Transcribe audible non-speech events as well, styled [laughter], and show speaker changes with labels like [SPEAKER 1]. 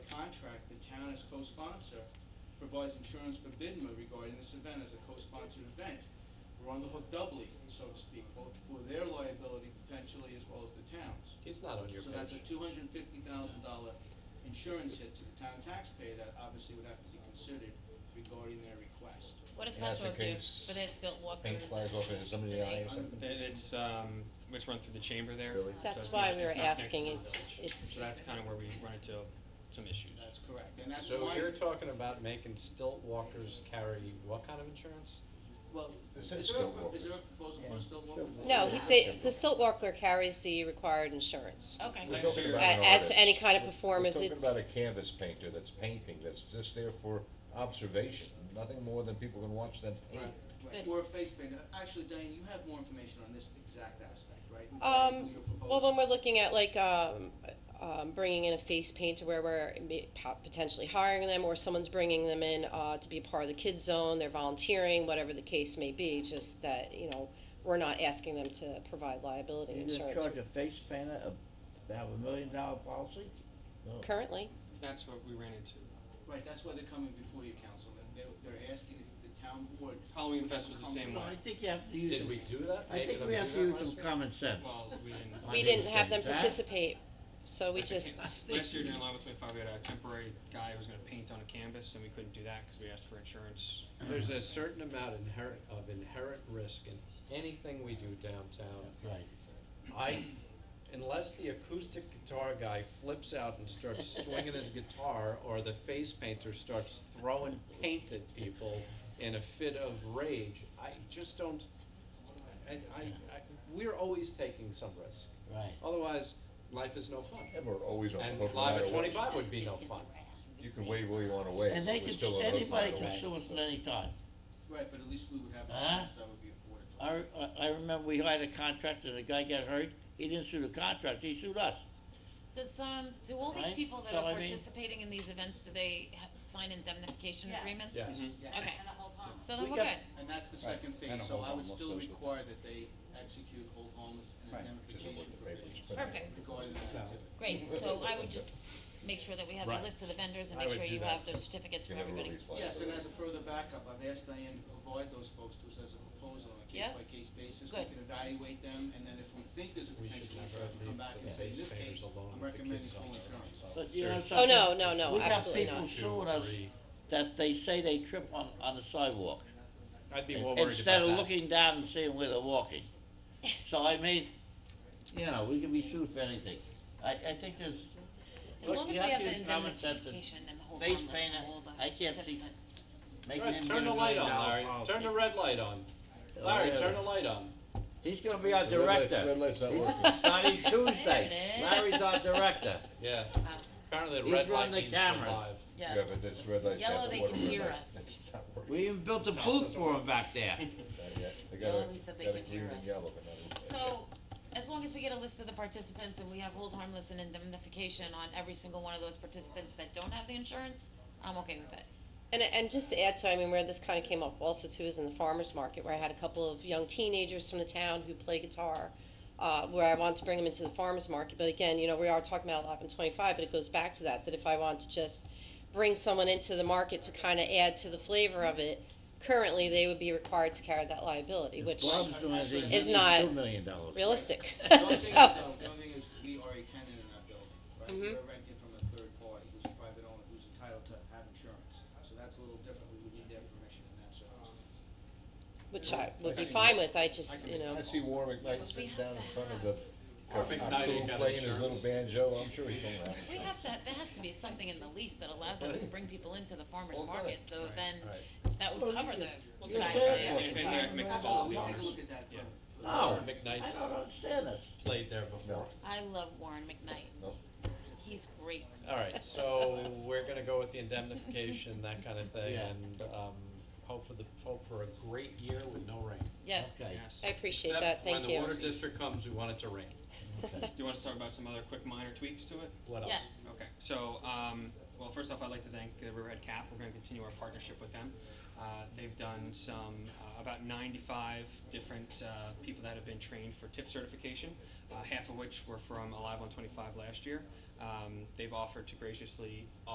[SPEAKER 1] contract, the town as co-sponsor provides insurance for BIDMA regarding this event as a co-sponsored event. We're on the hook doubly, so to speak, both for their liability potentially as well as the town's.
[SPEAKER 2] He's not on your
[SPEAKER 1] So
[SPEAKER 2] page.
[SPEAKER 1] that's a two hundred and fifty thousand dollar insurance hit to the town taxpayer that obviously would have to be considered regarding their request.
[SPEAKER 3] What does
[SPEAKER 4] And that's the
[SPEAKER 3] Petro do
[SPEAKER 4] case
[SPEAKER 3] for their stilt walkers?
[SPEAKER 4] paint flies off into somebody's
[SPEAKER 3] today?
[SPEAKER 4] eye or something.
[SPEAKER 5] That it's, um, it's run through the chamber there.
[SPEAKER 4] Really?
[SPEAKER 5] so
[SPEAKER 6] That's
[SPEAKER 5] it's
[SPEAKER 6] why
[SPEAKER 5] not-
[SPEAKER 6] we were
[SPEAKER 5] it's not connected
[SPEAKER 6] asking,
[SPEAKER 5] to the
[SPEAKER 6] it's,
[SPEAKER 5] village. So that's
[SPEAKER 6] it's,
[SPEAKER 5] kinda where we run into some issues.
[SPEAKER 1] That's correct, and that's
[SPEAKER 2] So
[SPEAKER 1] why,
[SPEAKER 2] you're talking about making stilt walkers carry what kind of insurance?
[SPEAKER 1] well, is
[SPEAKER 4] This
[SPEAKER 1] there
[SPEAKER 4] is
[SPEAKER 1] a,
[SPEAKER 4] Stillwater.
[SPEAKER 1] is there a proposal for Stillwater?
[SPEAKER 6] no, he- they, the silt walker carries the required insurance.
[SPEAKER 3] Okay,
[SPEAKER 4] We're
[SPEAKER 5] Thanks
[SPEAKER 4] talking
[SPEAKER 5] for your-
[SPEAKER 6] A-
[SPEAKER 4] about an
[SPEAKER 6] As
[SPEAKER 4] artist.
[SPEAKER 6] any kind of
[SPEAKER 4] We're-
[SPEAKER 6] performance,
[SPEAKER 4] We're
[SPEAKER 6] it's,
[SPEAKER 4] talking about a canvas painter that's painting, that's just there for observation, nothing more than people can watch them
[SPEAKER 1] Right,
[SPEAKER 4] paint.
[SPEAKER 1] right,
[SPEAKER 3] Good.
[SPEAKER 1] or a face paint, Uh, actually, Diane, you have more information on this exact aspect, right? Who-
[SPEAKER 6] Um,
[SPEAKER 1] who you're proposing.
[SPEAKER 6] well, when we're looking at like, um, um, bringing in a face painter where we're ma- po- potentially hiring them, or someone's bringing them in, uh, to be a part of the kids zone, they're volunteering, whatever the case may be, just that, you know, we're not asking them to provide liability
[SPEAKER 7] You're gonna
[SPEAKER 6] insurance
[SPEAKER 7] charge a face painter a, to have a million dollar policy?
[SPEAKER 4] No.
[SPEAKER 6] currently.
[SPEAKER 5] That's what we ran into.
[SPEAKER 1] Right, that's why they're coming before you, councilman, they're, they're asking if the town board.
[SPEAKER 5] Halloween Fest was the same
[SPEAKER 7] No, I
[SPEAKER 5] way.
[SPEAKER 7] think you have to use,
[SPEAKER 2] Did we
[SPEAKER 7] some-
[SPEAKER 2] do that?
[SPEAKER 7] I
[SPEAKER 2] Made
[SPEAKER 7] think
[SPEAKER 2] them
[SPEAKER 7] we
[SPEAKER 2] do
[SPEAKER 7] have
[SPEAKER 2] that
[SPEAKER 7] to use
[SPEAKER 2] last
[SPEAKER 7] some
[SPEAKER 2] year?
[SPEAKER 7] common sense.
[SPEAKER 5] Well, we didn't.
[SPEAKER 6] We
[SPEAKER 5] I
[SPEAKER 6] didn't have them
[SPEAKER 7] Huh?
[SPEAKER 6] participate, so we
[SPEAKER 5] I think-
[SPEAKER 6] just,
[SPEAKER 5] Last year during Live with Twenty-Five, we had a temporary guy who was gonna paint on a canvas, and we couldn't do that because we asked for insurance.
[SPEAKER 2] There's a certain amount inherent, of inherent risk in anything we do downtown.
[SPEAKER 7] Right.
[SPEAKER 2] I, unless the acoustic guitar guy flips out and starts swinging his guitar, or the face painter starts throwing paint at people in a fit of rage, I just don't, I, I, I, we're always taking some risk.
[SPEAKER 7] Right.
[SPEAKER 2] Otherwise, life is no fun.
[SPEAKER 4] And we're always on
[SPEAKER 2] And
[SPEAKER 4] hook, no
[SPEAKER 2] live
[SPEAKER 4] matter
[SPEAKER 2] at
[SPEAKER 4] what.
[SPEAKER 2] twenty-five would be no fun.
[SPEAKER 4] You can wave where you wanna wave,
[SPEAKER 7] And they
[SPEAKER 4] we're
[SPEAKER 7] can,
[SPEAKER 4] still on hook, no
[SPEAKER 7] anybody
[SPEAKER 4] matter
[SPEAKER 7] can
[SPEAKER 4] what.
[SPEAKER 7] sue us at any time.
[SPEAKER 1] Right, but at least we would have
[SPEAKER 7] Huh?
[SPEAKER 1] insurance that would be afforded to us.
[SPEAKER 7] I, I- I remember we hired a contractor, the guy got hurt, he didn't sue the contractor, he sued us.
[SPEAKER 3] does, um, do all these
[SPEAKER 7] Right?
[SPEAKER 3] people that
[SPEAKER 7] So I
[SPEAKER 3] are
[SPEAKER 7] mean-
[SPEAKER 3] participating in these events, do they ha- sign indemnification
[SPEAKER 8] Yes.
[SPEAKER 3] agreements?
[SPEAKER 2] Yes.
[SPEAKER 1] Yeah.
[SPEAKER 3] Okay,
[SPEAKER 8] and a whole pond.
[SPEAKER 3] so then
[SPEAKER 7] We
[SPEAKER 3] we're
[SPEAKER 7] got-
[SPEAKER 3] good.
[SPEAKER 1] And that's the second
[SPEAKER 4] And
[SPEAKER 1] phase,
[SPEAKER 4] a
[SPEAKER 1] so
[SPEAKER 4] hold
[SPEAKER 1] I would
[SPEAKER 4] harmless
[SPEAKER 1] still
[SPEAKER 4] those with-
[SPEAKER 1] require that they execute hold harmless and
[SPEAKER 4] Right. Which is
[SPEAKER 1] indemnification
[SPEAKER 4] what the paper
[SPEAKER 1] provisions
[SPEAKER 4] was put in.
[SPEAKER 3] Perfect.
[SPEAKER 1] regarding that
[SPEAKER 2] No.
[SPEAKER 1] activity.
[SPEAKER 7] [laughs]
[SPEAKER 3] Great, so I would just make sure that we have
[SPEAKER 2] Right.
[SPEAKER 3] the list of the vendors and
[SPEAKER 2] I
[SPEAKER 3] make
[SPEAKER 2] would
[SPEAKER 3] sure
[SPEAKER 2] do
[SPEAKER 3] you
[SPEAKER 2] that.
[SPEAKER 3] have the certificates
[SPEAKER 4] You
[SPEAKER 3] from
[SPEAKER 4] never
[SPEAKER 3] everybody.
[SPEAKER 4] release liability.
[SPEAKER 1] Yes, and as a further backup, I've asked Diane to provide those folks to us as a proposal on a
[SPEAKER 3] Yeah.
[SPEAKER 1] case-by-case basis.
[SPEAKER 3] Good.
[SPEAKER 1] We can evaluate them, and then if we think there's a
[SPEAKER 2] We should
[SPEAKER 1] potential
[SPEAKER 2] never
[SPEAKER 1] issue, I can come
[SPEAKER 2] leave
[SPEAKER 1] back
[SPEAKER 2] the
[SPEAKER 1] and say, in this
[SPEAKER 2] base painters
[SPEAKER 1] case,
[SPEAKER 2] alone
[SPEAKER 1] I'm
[SPEAKER 2] with the
[SPEAKER 1] recommending
[SPEAKER 2] kids
[SPEAKER 1] full
[SPEAKER 2] on it.
[SPEAKER 1] insurance.
[SPEAKER 7] But you know
[SPEAKER 2] Seriously.
[SPEAKER 6] oh,
[SPEAKER 7] something?
[SPEAKER 6] no, no, no,
[SPEAKER 7] We got
[SPEAKER 6] absolutely
[SPEAKER 7] people
[SPEAKER 6] not.
[SPEAKER 2] Two,
[SPEAKER 7] suing us
[SPEAKER 2] three.
[SPEAKER 7] that they say they trip on, on the sidewalk.
[SPEAKER 2] I'd be more worried about that.
[SPEAKER 7] Mm-hmm. Instead of looking down and seeing where they're walking. So I mean, you know, we can be sued for anything. I, I think there's,
[SPEAKER 3] As
[SPEAKER 7] Look,
[SPEAKER 3] long as
[SPEAKER 7] you
[SPEAKER 3] we
[SPEAKER 7] have
[SPEAKER 3] have the
[SPEAKER 7] to use common sense and
[SPEAKER 3] indemnification and the whole
[SPEAKER 7] face
[SPEAKER 3] harmless
[SPEAKER 7] paint
[SPEAKER 3] for
[SPEAKER 7] it.
[SPEAKER 3] all the
[SPEAKER 7] I can't see-
[SPEAKER 3] participants.
[SPEAKER 7] making
[SPEAKER 2] Alright,
[SPEAKER 7] him get a
[SPEAKER 2] turn the
[SPEAKER 7] million
[SPEAKER 2] light on,
[SPEAKER 7] dollar
[SPEAKER 2] Larry,
[SPEAKER 7] policy.
[SPEAKER 2] turn the red light on.
[SPEAKER 7] Oh,
[SPEAKER 2] Larry, turn the light on.
[SPEAKER 7] He's gonna be our
[SPEAKER 4] The red light-
[SPEAKER 7] director.
[SPEAKER 4] Red light's not working.
[SPEAKER 7] Starting
[SPEAKER 3] There
[SPEAKER 7] Tuesday,
[SPEAKER 3] it is.
[SPEAKER 7] Larry's our director.
[SPEAKER 2] Yeah,
[SPEAKER 6] Uh,
[SPEAKER 2] apparently the
[SPEAKER 7] He's
[SPEAKER 2] red light
[SPEAKER 7] running the
[SPEAKER 2] needs to be
[SPEAKER 7] cameras.
[SPEAKER 2] live.
[SPEAKER 3] [laughs] Yes.
[SPEAKER 4] Yeah, but this red light.
[SPEAKER 3] Yellow,
[SPEAKER 4] that's a
[SPEAKER 3] they
[SPEAKER 4] water
[SPEAKER 3] can
[SPEAKER 4] red
[SPEAKER 3] hear
[SPEAKER 4] light.
[SPEAKER 3] us.
[SPEAKER 4] [laughs] It's not working.
[SPEAKER 7] We even built a booth for him back there.
[SPEAKER 4] Not yet. They got
[SPEAKER 3] Yellow,
[SPEAKER 4] a-
[SPEAKER 3] he said they
[SPEAKER 4] got a
[SPEAKER 3] can
[SPEAKER 4] green
[SPEAKER 3] hear
[SPEAKER 4] and
[SPEAKER 3] us.
[SPEAKER 4] yellow, but not a-
[SPEAKER 3] So, as long as we get a list of the participants and we have hold harmless and indemnification on every single one of those participants that don't have the insurance, I'm okay with it.
[SPEAKER 6] And, and just to add to, it, I mean, where this kind of came up also too is in the farmer's market, where I had a couple of young teenagers from the town who play guitar, uh, where I wanted to bring them into the farmer's market, but again, you know, we are talking about eleven twenty-five, but it goes back to that, that if I want to just bring someone into the market to kind of add to the flavor of it, currently, they would be required to carry that liability, which
[SPEAKER 7] Bob's doing anything,
[SPEAKER 6] Is
[SPEAKER 7] he's
[SPEAKER 6] not
[SPEAKER 7] two million dollars.
[SPEAKER 6] realistic,
[SPEAKER 3] [laughs]
[SPEAKER 6] [laughs]
[SPEAKER 1] The only thing is,
[SPEAKER 6] so.
[SPEAKER 1] though, the only thing is, we are a tenant in that building, right?
[SPEAKER 3] Mm-hmm.
[SPEAKER 1] We're renting from a third party who's a private owner who's entitled to have insurance. So that's a little different, we would need their permission in that circumstance.
[SPEAKER 6] Which I would be fine with, I just, you know,
[SPEAKER 4] I see Warwick Knight
[SPEAKER 3] But we
[SPEAKER 4] sitting
[SPEAKER 3] have
[SPEAKER 4] down in
[SPEAKER 3] to
[SPEAKER 4] front of
[SPEAKER 3] have-
[SPEAKER 4] the.
[SPEAKER 2] Warwick
[SPEAKER 4] I'm
[SPEAKER 2] Knight
[SPEAKER 4] cool
[SPEAKER 2] ain't got
[SPEAKER 4] Playing his little
[SPEAKER 2] insurance.
[SPEAKER 4] banjo, I'm sure he's gonna have.
[SPEAKER 3] We have to, there has to be something in the lease that allows us to bring people into the farmer's
[SPEAKER 4] Well, good.
[SPEAKER 3] market, so
[SPEAKER 2] Right,
[SPEAKER 3] then,
[SPEAKER 2] right.
[SPEAKER 3] that would cover the.
[SPEAKER 7] take
[SPEAKER 3] back
[SPEAKER 7] care of
[SPEAKER 3] end
[SPEAKER 7] it.
[SPEAKER 3] of
[SPEAKER 5] If
[SPEAKER 3] the
[SPEAKER 5] anything, I
[SPEAKER 3] time.
[SPEAKER 5] can make the
[SPEAKER 1] Absolutely,
[SPEAKER 5] calls
[SPEAKER 1] we
[SPEAKER 5] to
[SPEAKER 1] take a
[SPEAKER 5] owners.
[SPEAKER 1] look at that.
[SPEAKER 5] Yeah.
[SPEAKER 1] for-
[SPEAKER 7] No,
[SPEAKER 2] Warren
[SPEAKER 7] Oh, I
[SPEAKER 2] McKnight's
[SPEAKER 7] don't understand this.
[SPEAKER 2] played there before.
[SPEAKER 3] I love Warren McKnight.
[SPEAKER 4] No.
[SPEAKER 3] He's great.
[SPEAKER 2] Alright, so
[SPEAKER 7] [laughs]
[SPEAKER 2] we're gonna go with the indemnification, that kinda thing,
[SPEAKER 7] Yeah.
[SPEAKER 2] and, um, hope for the, hope for a great year with no rain.
[SPEAKER 3] Yes.
[SPEAKER 7] Okay.
[SPEAKER 6] I appreciate that, thank
[SPEAKER 2] Except when the
[SPEAKER 6] you.
[SPEAKER 2] water district comes, we want it to rain.
[SPEAKER 5] Do you want us to talk about some other quick minor tweaks to it?
[SPEAKER 2] What else?
[SPEAKER 3] Yes.
[SPEAKER 5] Okay, so, um, well, first off, I'd like to thank uh, Riverhead Cap, we're gonna continue our partnership with them. Uh, they've done some, uh, about ninety-five different, uh, people that have been trained for tip certification, uh, half of which were from Alive on Twenty-Five last year. Um, they've offered to graciously